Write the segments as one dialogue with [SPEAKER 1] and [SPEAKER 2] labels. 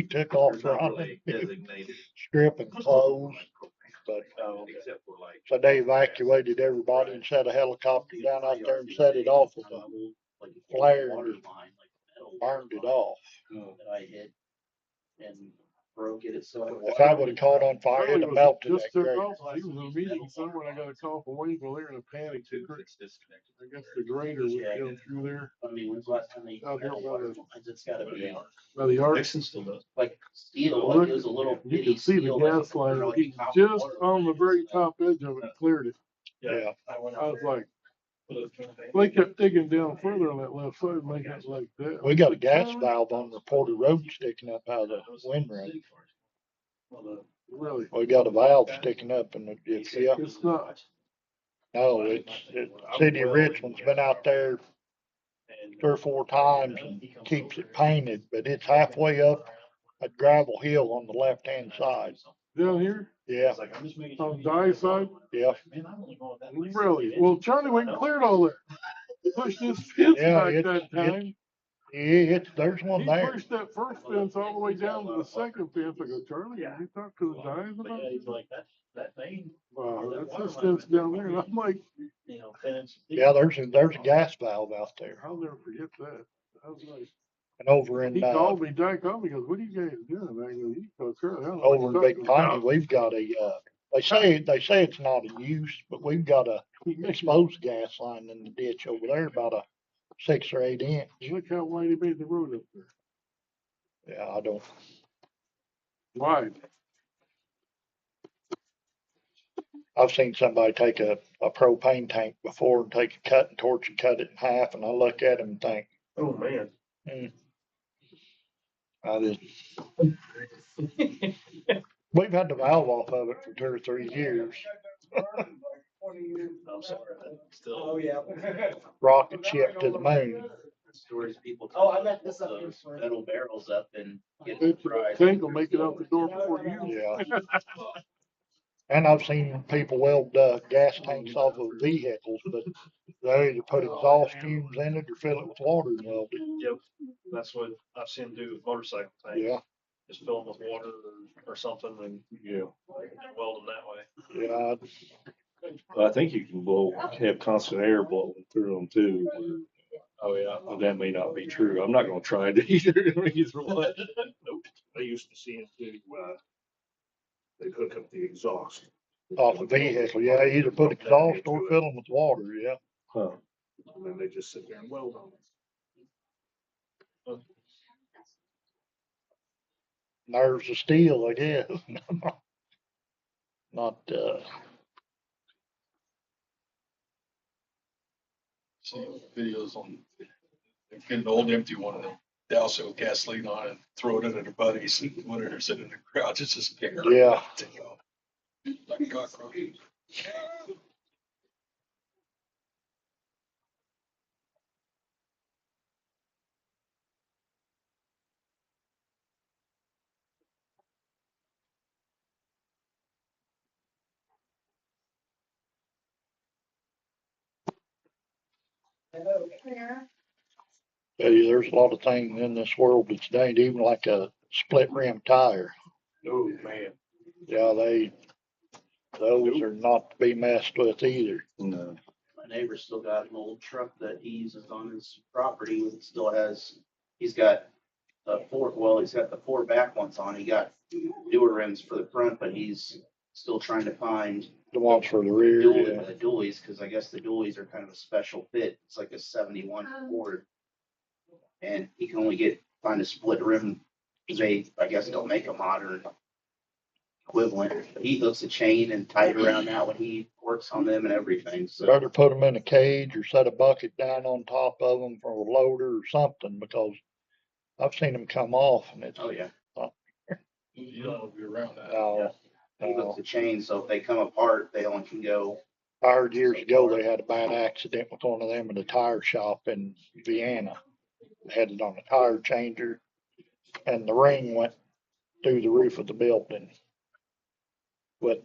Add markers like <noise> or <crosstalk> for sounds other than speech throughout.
[SPEAKER 1] He took off
[SPEAKER 2] They're not
[SPEAKER 1] running, <laughs>
[SPEAKER 2] really Designated.
[SPEAKER 1] strip and clothes, but, uh,
[SPEAKER 2] Except for like.
[SPEAKER 1] so they evacuated everybody and sent a helicopter down out there and set it off with a
[SPEAKER 3] a
[SPEAKER 1] flare
[SPEAKER 3] Water
[SPEAKER 1] and
[SPEAKER 3] line, like metal
[SPEAKER 1] burned it
[SPEAKER 3] water line
[SPEAKER 1] off.
[SPEAKER 4] Oh.
[SPEAKER 3] That I hit and broke it, so.
[SPEAKER 1] If I would've caught on fire, it'd
[SPEAKER 4] Charlie
[SPEAKER 1] have
[SPEAKER 4] was
[SPEAKER 1] melted
[SPEAKER 4] Just
[SPEAKER 1] that
[SPEAKER 4] took
[SPEAKER 1] grader.
[SPEAKER 4] off, he was in a meeting somewhere, and I got a call from Waynesville, they were in a panic, The gr-
[SPEAKER 2] It's disconnected.
[SPEAKER 4] I guess the grader was going through there,
[SPEAKER 3] I mean, when's the last time they.
[SPEAKER 4] Out here,
[SPEAKER 3] metal
[SPEAKER 4] water.
[SPEAKER 3] water lines? It's gotta be
[SPEAKER 4] by the arc.
[SPEAKER 2] Dixon still does.
[SPEAKER 3] like steel,
[SPEAKER 4] Look,
[SPEAKER 3] like it was a little.
[SPEAKER 4] You
[SPEAKER 3] bitty
[SPEAKER 4] can see the
[SPEAKER 3] steel, like,
[SPEAKER 4] gas line,
[SPEAKER 3] really
[SPEAKER 4] he
[SPEAKER 3] top
[SPEAKER 4] just
[SPEAKER 3] water
[SPEAKER 4] on the
[SPEAKER 3] line.
[SPEAKER 4] very top edge of it cleared it,
[SPEAKER 1] Yeah,
[SPEAKER 3] I went
[SPEAKER 4] I
[SPEAKER 3] out
[SPEAKER 4] was
[SPEAKER 3] there.
[SPEAKER 4] like, they kept digging down further on that left side, making it like that.
[SPEAKER 1] we got a gas valve on the Porter Road sticking up out of the windrow.
[SPEAKER 4] Really,
[SPEAKER 1] We got a valve sticking up and it-
[SPEAKER 2] E
[SPEAKER 1] it's, yeah,
[SPEAKER 4] it's not,
[SPEAKER 1] no, it's, it, City of Richmond's been out there
[SPEAKER 2] uh,
[SPEAKER 1] three or four times and keeps it painted, but it's halfway up a gravel hill on the left-hand side.
[SPEAKER 4] down here,
[SPEAKER 1] Yeah,
[SPEAKER 4] on die side,
[SPEAKER 1] yeah,
[SPEAKER 4] really, well, Charlie went and cleared all that. Pushed his fence
[SPEAKER 1] Yeah,
[SPEAKER 4] back
[SPEAKER 1] it's-
[SPEAKER 4] that
[SPEAKER 1] it's
[SPEAKER 4] time.
[SPEAKER 1] yeah, it's, there's one
[SPEAKER 4] He
[SPEAKER 1] there.
[SPEAKER 4] pushed that first fence all the way down to the second fence. I go, Charlie, have you talked to the guys
[SPEAKER 3] But
[SPEAKER 4] about
[SPEAKER 3] yeah,
[SPEAKER 4] it?
[SPEAKER 3] he's like, that, that thing,
[SPEAKER 4] Wow,
[SPEAKER 3] that
[SPEAKER 4] that's this
[SPEAKER 3] water line
[SPEAKER 4] fence down there. And I'm like,
[SPEAKER 3] you know, fence.
[SPEAKER 1] Yeah, there's, a there's a
[SPEAKER 2] Oh,
[SPEAKER 1] gas valve out there
[SPEAKER 4] I'll never forget that. I was like,
[SPEAKER 1] and over in,
[SPEAKER 4] he
[SPEAKER 1] uh,
[SPEAKER 4] called me, Dad called me, goes, what are you guys doing? And I go, you go, Charlie. I don't know what
[SPEAKER 1] over in
[SPEAKER 4] you're
[SPEAKER 1] Big
[SPEAKER 4] talking
[SPEAKER 1] Piney, we've got a, uh, they say, they say it's not a use, but we've got
[SPEAKER 4] <laughs>
[SPEAKER 1] a
[SPEAKER 4] about."
[SPEAKER 1] exposed gas line in the ditch over there, about a six or eight inch.
[SPEAKER 4] Look how wide he made the road up there.
[SPEAKER 1] Yeah, I don't,
[SPEAKER 4] Wide.
[SPEAKER 1] I've seen somebody take a, a propane tank before and take a cut and torch and cut it in half, and I look at him and think, "Hmm,
[SPEAKER 2] Oh, man.
[SPEAKER 1] I didn't.
[SPEAKER 2] <laughs>
[SPEAKER 1] We've had the valve off of it for two or three <laughs> years.
[SPEAKER 4] Oh,
[SPEAKER 2] Still.
[SPEAKER 5] yeah.
[SPEAKER 1] Rocket ship to the moon.
[SPEAKER 3] Stories people.
[SPEAKER 5] Oh, I
[SPEAKER 3] tell
[SPEAKER 5] got this up
[SPEAKER 3] about
[SPEAKER 5] here
[SPEAKER 3] those
[SPEAKER 5] for you.
[SPEAKER 3] Metal barrels up and
[SPEAKER 4] Bet you
[SPEAKER 3] getting
[SPEAKER 4] the
[SPEAKER 3] fried.
[SPEAKER 4] Tank will make it out the door before you.
[SPEAKER 1] Yeah. And I've seen people weld uh, gas tanks off of vehicles, but they either put exhaust fumes in it or fill it with water and weld it.
[SPEAKER 2] Yep, that's what I've seen do with motorcycle tanks.
[SPEAKER 1] Yeah,
[SPEAKER 2] Just fill them with water or- or something and
[SPEAKER 6] <laughs> Yeah,
[SPEAKER 2] weld them that way.
[SPEAKER 1] yeah.
[SPEAKER 6] but I think you can blow, have constant air blowing through them too.
[SPEAKER 2] Oh, yeah.
[SPEAKER 6] Well, That may not be true. I'm not gonna try it either. <laughs> Either one.
[SPEAKER 2] Nope. I used to see it do, uh, they'd hook up the exhaust.
[SPEAKER 1] Off a vehicle, yeah, either put exhaust or fill them with water, yeah.
[SPEAKER 6] Huh.
[SPEAKER 2] And then they just sit there and weld on it.
[SPEAKER 1] Nerves of steel, I guess. <laughs> Not, uh,
[SPEAKER 7] See videos on, get an old empty one and douse it with gasoline on it, throw it in at their buddies and whatever, sit in the crowd, it's just.
[SPEAKER 1] Yeah.
[SPEAKER 7] Like cockroach.
[SPEAKER 1] hey, there's a lot of things in this world that's dang, even like a split rim tire.
[SPEAKER 2] Oh, man.
[SPEAKER 1] Yeah, they, those are not to be messed with either.
[SPEAKER 6] No.
[SPEAKER 3] My neighbor's still got an old truck that he uses on his property and still has, he's got the four, well, he's got the four back ones on. He got newer rims for the front, but he's still trying to find
[SPEAKER 1] The ones for the rear, yeah.
[SPEAKER 3] dually, the dualies, because I guess the dualies are kind of a special fit. It's like a seventy-one Ford. And he can only get, find a split rim. They, I guess, don't make a modern equivalent. He hooks a chain and tie it around that when he works on them and everything, so.
[SPEAKER 1] Better put them in a cage or set a bucket down on top of them for a loader or something, because I've seen them come off and it's,
[SPEAKER 3] Oh, yeah.
[SPEAKER 7] You don't want to be around that.
[SPEAKER 1] no,
[SPEAKER 3] He
[SPEAKER 1] no.
[SPEAKER 3] hooks the chain, so if they come apart, they only can go.
[SPEAKER 1] I heard years ago, they had a bad accident with one of them at a tire shop in Vienna. They Had it on a tire changer and the ring went through the roof of the building. But,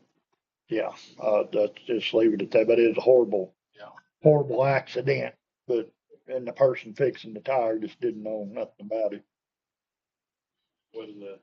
[SPEAKER 1] yeah, uh, that's, just leave it at that, but it's a horrible,
[SPEAKER 7] Yeah.
[SPEAKER 1] horrible accident. But, and the person fixing the tire just didn't know nothing about it.
[SPEAKER 7] when the